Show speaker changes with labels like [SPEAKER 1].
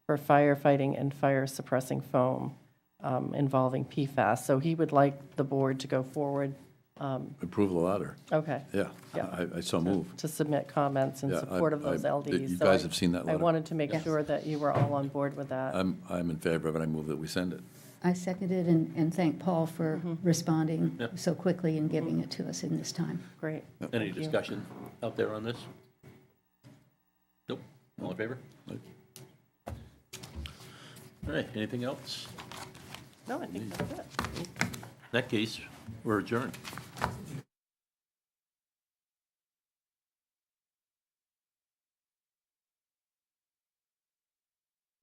[SPEAKER 1] for firefighting and fire suppressing foam um, involving PFAS. So he would like the board to go forward,
[SPEAKER 2] Approve the latter.
[SPEAKER 1] okay,
[SPEAKER 2] Yeah,
[SPEAKER 1] Yeah.
[SPEAKER 2] I, I so move.
[SPEAKER 1] to submit comments in
[SPEAKER 2] Yeah, I-
[SPEAKER 1] support of those
[SPEAKER 2] I-
[SPEAKER 1] LDs.
[SPEAKER 2] you
[SPEAKER 1] So
[SPEAKER 2] guys
[SPEAKER 1] I-
[SPEAKER 2] have seen that
[SPEAKER 1] I
[SPEAKER 2] letter. Uh,
[SPEAKER 1] wanted to make sure that you were all on board with that.
[SPEAKER 2] I'm, I'm in favor of it. I move that we send it.
[SPEAKER 3] I seconded and, and thank Paul for responding so quickly and giving it to us in this time.
[SPEAKER 1] Great.
[SPEAKER 4] Any discussion out there on this? Nope, all in favor? All right, anything else?
[SPEAKER 1] No, I think that's it.
[SPEAKER 4] In that case, we're adjourned.